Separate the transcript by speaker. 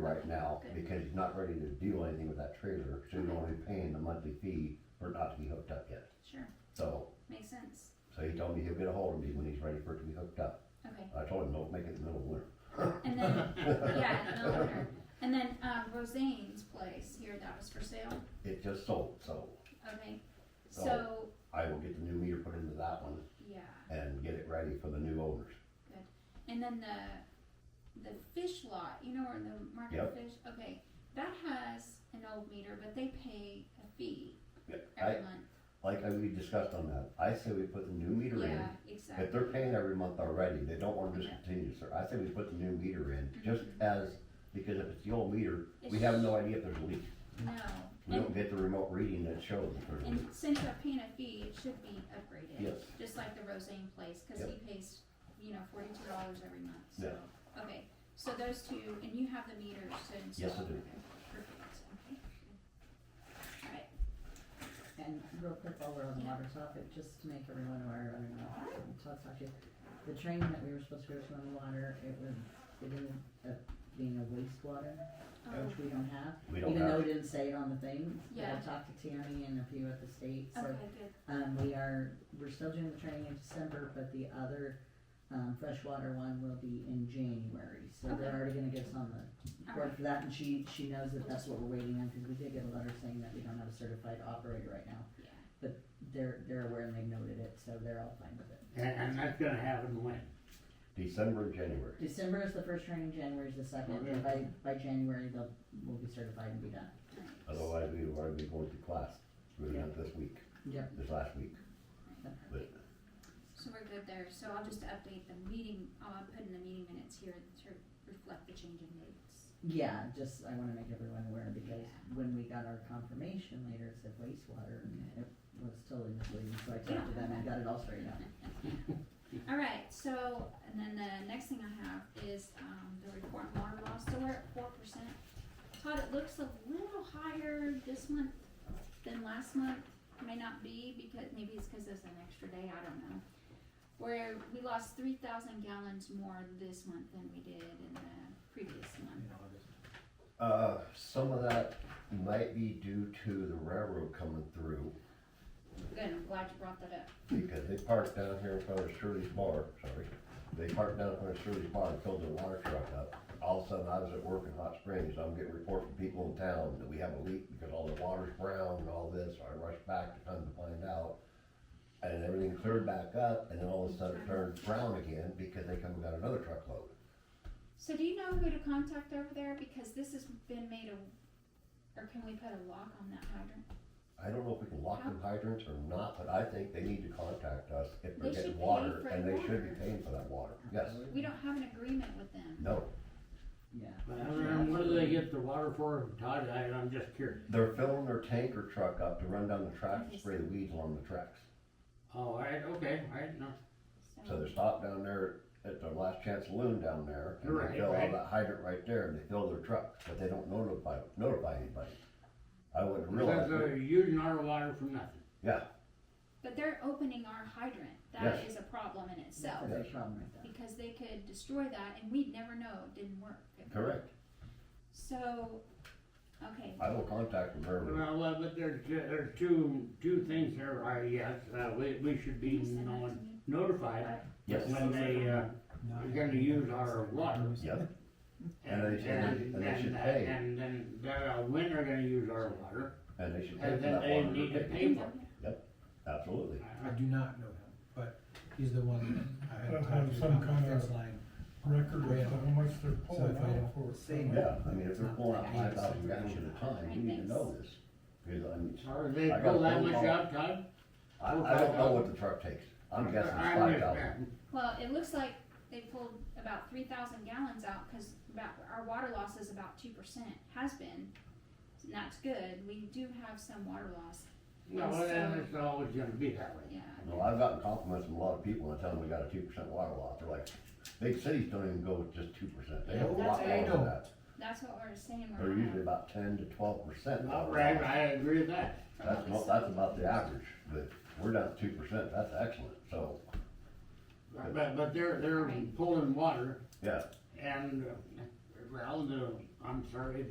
Speaker 1: right now,
Speaker 2: Okay.
Speaker 1: because he's not ready to do anything with that trailer, so he's only paying the monthly fee for it not to be hooked up yet.
Speaker 2: Sure,
Speaker 1: So,
Speaker 2: makes sense.
Speaker 1: so he told me he'll get a hold of me when he's ready for it to be hooked up.
Speaker 2: Okay,
Speaker 1: I told him don't make it in the middle of
Speaker 2: and then,
Speaker 1: winter.
Speaker 2: yeah, no wonder. And then, um, Roseanne's place here, that was for sale,
Speaker 1: It just sold, so
Speaker 2: okay?
Speaker 1: So-
Speaker 2: So,
Speaker 1: I will get the new meter put into that one
Speaker 2: yeah,
Speaker 1: and get it ready for the new owners.
Speaker 2: and then the, the fish lot, you know where the market
Speaker 1: Yep.
Speaker 2: fish, okay, that has an old meter, but they pay a fee
Speaker 1: I,
Speaker 2: every month.
Speaker 1: like I- we discussed on that, I say we put the new meter in.
Speaker 2: Yeah,
Speaker 1: If
Speaker 2: exactly,
Speaker 1: they're paying every month already, they don't wanna just
Speaker 2: Yeah.
Speaker 1: continue, sir. I say we put the new meter in, just
Speaker 2: Mhm.
Speaker 1: as, because if it's the old meter, we
Speaker 2: It's-
Speaker 1: have no idea if there's a leak.
Speaker 2: no,
Speaker 1: We
Speaker 2: and,
Speaker 1: don't get the remote reading that shows if there's a
Speaker 3: Mm-hmm.
Speaker 1: leak.
Speaker 2: and since they're paying a fee, it should be upgraded.
Speaker 1: Yes,
Speaker 2: Just like the Roseanne place, cause he pays, you know, forty-two dollars every month, so, okay, so those two, and you have the meters to install?
Speaker 1: Yes, I do.
Speaker 2: Okay, Perfect, okay. Alright,
Speaker 3: And real quick, while we're on the water topic, just to make everyone aware, I don't know, I'll talk about you. The training that we were supposed to go to on the water, it was, it ended up being a wastewater,
Speaker 2: oh,
Speaker 3: which we don't have.
Speaker 1: we don't
Speaker 3: Even though
Speaker 1: have,
Speaker 3: it didn't say it on the thing, but I
Speaker 2: Yeah.
Speaker 3: talked to Tammy and a few at the state, so,
Speaker 2: okay, good,
Speaker 3: um, we are, we're still doing the training in December, but the other, um, freshwater one will be in January, so they're
Speaker 2: Okay.
Speaker 3: already gonna get us on the
Speaker 2: alright,
Speaker 3: work for that, and she, she knows that that's what we're waiting on, because we did get a letter saying that we don't have a certified operator right now.
Speaker 2: yeah,
Speaker 3: They're, they're aware and they noted it, so they're all fine with it.
Speaker 4: And, and that's gonna happen when?
Speaker 1: December and January.
Speaker 3: December is the first training, January is the second,
Speaker 4: Okay.
Speaker 3: and by, by January, they'll, we'll be certified and be done.
Speaker 2: alright,
Speaker 1: Otherwise, we would already be going to class, we would have this week,
Speaker 3: Yep.
Speaker 1: this last week.
Speaker 2: perfect. So we're good there, so I'll just update the meeting, I'll put in the meeting minutes here to reflect the change in dates.
Speaker 3: Yeah, just, I wanna make everyone aware, because when we got our confirmation later, it said wastewater, and it was totally misleading, so I talked to them and got it all straightened out.
Speaker 2: Alright, so, and then the next thing I have is, um, the report on water loss, so we're at four percent. Todd, it looks a little higher this month than last month, may not be, because, maybe it's cause it's an extra day, I don't know. Where we lost three thousand gallons more this month than we did in the previous month.
Speaker 1: Uh, some of that might be due to the railroad coming through,
Speaker 2: Good, I'm glad you brought that up.
Speaker 1: because they parked down here in front of Shirley's Bar, sorry. They parked down in front of Shirley's Bar and filled their water truck up. All of a sudden, I was at work in Hot Springs, I'm getting reports from people in town that we have a leak because all the water's brown and all this, so I rushed back to come to find out. And everything cleared back up, and then all of a sudden it turned brown again because they come and got another truckload.
Speaker 2: So do you know who to contact over there, because this has been made a, or can we put a lock on that hydrant?
Speaker 1: I don't know if we can lock them hydrants or not, but I think they need to contact us if
Speaker 2: They
Speaker 1: they're
Speaker 2: should
Speaker 1: getting
Speaker 2: pay
Speaker 1: water,
Speaker 2: for
Speaker 1: and they should
Speaker 2: water.
Speaker 1: be paying for that water, yes.
Speaker 2: We don't have an agreement with them.
Speaker 1: No,
Speaker 3: Yeah.
Speaker 4: And what do they get the water for, Todd, I, I'm just curious.
Speaker 1: they're filling their tanker truck up to run down the tracks and spray the weeds along the tracks.
Speaker 4: Oh, alright, okay, alright, no,
Speaker 1: So they stop down there at their last chance saloon down there, and
Speaker 4: Right,
Speaker 1: they fill all
Speaker 4: right.
Speaker 1: that hydrant right there, and they fill their truck, but they don't notify, notify anybody. I wouldn't realize,
Speaker 4: because they're using our water for nothing.
Speaker 1: yeah,
Speaker 2: But they're opening our hydrant. That is a problem in
Speaker 3: That's
Speaker 2: itself.
Speaker 3: a big problem right there.
Speaker 2: Because they could destroy that and we'd never know it didn't work.
Speaker 1: correct,
Speaker 2: So, okay,
Speaker 1: I will contact them very,
Speaker 4: Well, uh, but there's, ju- there's two, two things there, I yes, uh, we, we should be no- notified
Speaker 1: yes,
Speaker 4: when they, uh, are gonna use our water.
Speaker 1: yep,
Speaker 4: And,
Speaker 1: And they should-
Speaker 4: and,
Speaker 1: and they should
Speaker 4: and, uh,
Speaker 1: pay.
Speaker 4: and then, they're, uh, when they're gonna use our water,
Speaker 1: and they should pay for
Speaker 4: and then
Speaker 1: that
Speaker 4: they
Speaker 1: water.
Speaker 4: need to
Speaker 1: they're
Speaker 4: pay for
Speaker 1: paying. Absolutely,
Speaker 4: it.
Speaker 5: I do not know him, but he's the one I
Speaker 6: Gotta
Speaker 5: had
Speaker 6: have
Speaker 5: talked to
Speaker 6: some
Speaker 5: about
Speaker 6: kind
Speaker 5: the
Speaker 6: of-
Speaker 5: fence line.
Speaker 6: record of how much they're
Speaker 5: So if
Speaker 6: pulling
Speaker 5: I
Speaker 6: out for.
Speaker 5: don't say no,
Speaker 1: yeah, I mean, if they're pulling out
Speaker 5: It's
Speaker 1: five
Speaker 5: not
Speaker 1: thousand
Speaker 5: that
Speaker 1: gallons at a time, you need to know this. Because I mean,
Speaker 4: Or they
Speaker 1: I got a
Speaker 4: pull that
Speaker 1: phone
Speaker 4: much
Speaker 1: call.
Speaker 4: out, Todd?
Speaker 1: I, I don't know what the truck takes, I'm guessing it's
Speaker 4: I'm
Speaker 1: five
Speaker 4: just-
Speaker 1: thousand.
Speaker 2: Well, it looks like they pulled about three thousand gallons out, cause about, our water loss is about two percent, has been. And that's good. We do have some water loss,
Speaker 4: No, then it's always gonna be that way.
Speaker 2: yeah.
Speaker 1: Well, I've gotten compliments from a lot of people when I tell them we got a two percent water loss, they're like, big cities don't even go with just two percent, they have a
Speaker 5: Yeah,
Speaker 1: lot more
Speaker 5: they
Speaker 1: than
Speaker 5: don't.
Speaker 1: that.
Speaker 2: That's what we're saying. We're
Speaker 1: They're
Speaker 2: not-
Speaker 1: usually about ten to twelve percent.
Speaker 4: All right, I agree with that.
Speaker 1: That's, mo- that's about the average, but we're down to two percent, that's excellent, so,
Speaker 4: But, but they're, they're pulling water
Speaker 1: yeah,
Speaker 4: and, uh, well, the I'm sorry,